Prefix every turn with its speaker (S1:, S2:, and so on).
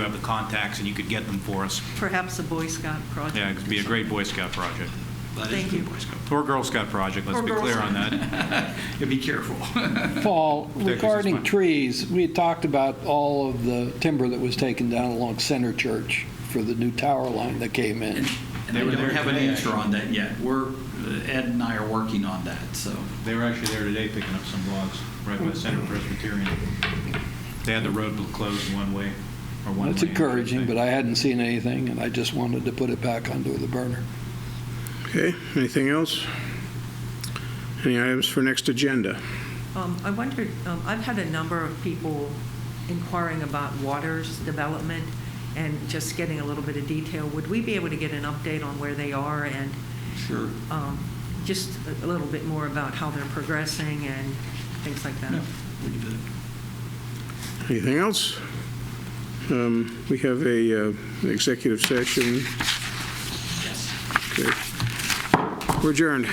S1: have the contacts and you could get them for us.
S2: Perhaps a Boy Scout project.
S1: Yeah, it'd be a great Boy Scout project.
S3: That is
S2: Thank
S3: a good
S2: you.
S3: Boy Scout.
S1: Or Girl Scout project, let's
S2: Or
S1: be
S2: Girl
S1: clear on
S2: Scout.
S1: that.
S3: Yeah, be careful.
S4: Paul,
S1: this
S4: regarding
S1: one.
S4: trees, we had talked about all of the timber that was taken down along Center Church for the new tower line that came in.
S3: And they
S1: They were
S3: don't
S1: there
S3: have an
S1: today,
S3: answer on that yet. We're, uh, Ed and I are working on that, so.
S1: They were actually there today picking up some logs right by Center Presbyterian. They had the road closed one way or one lane.
S4: That's encouraging, but I hadn't seen anything, and I just wanted to put it back onto the burner.
S5: Okay, anything else? Any items for next agenda?
S2: Um, I wondered, um, I've had a number of people inquiring about waters development and just getting a little bit of detail. Would we be able to get an update on where they are and
S3: Sure.
S2: um, just a- a little bit more about how they're progressing and things like that?
S3: Yeah, we can do that.
S5: Anything else? Um, We have a uh, executive session.
S3: Yes.
S5: Okay. We're adjourned.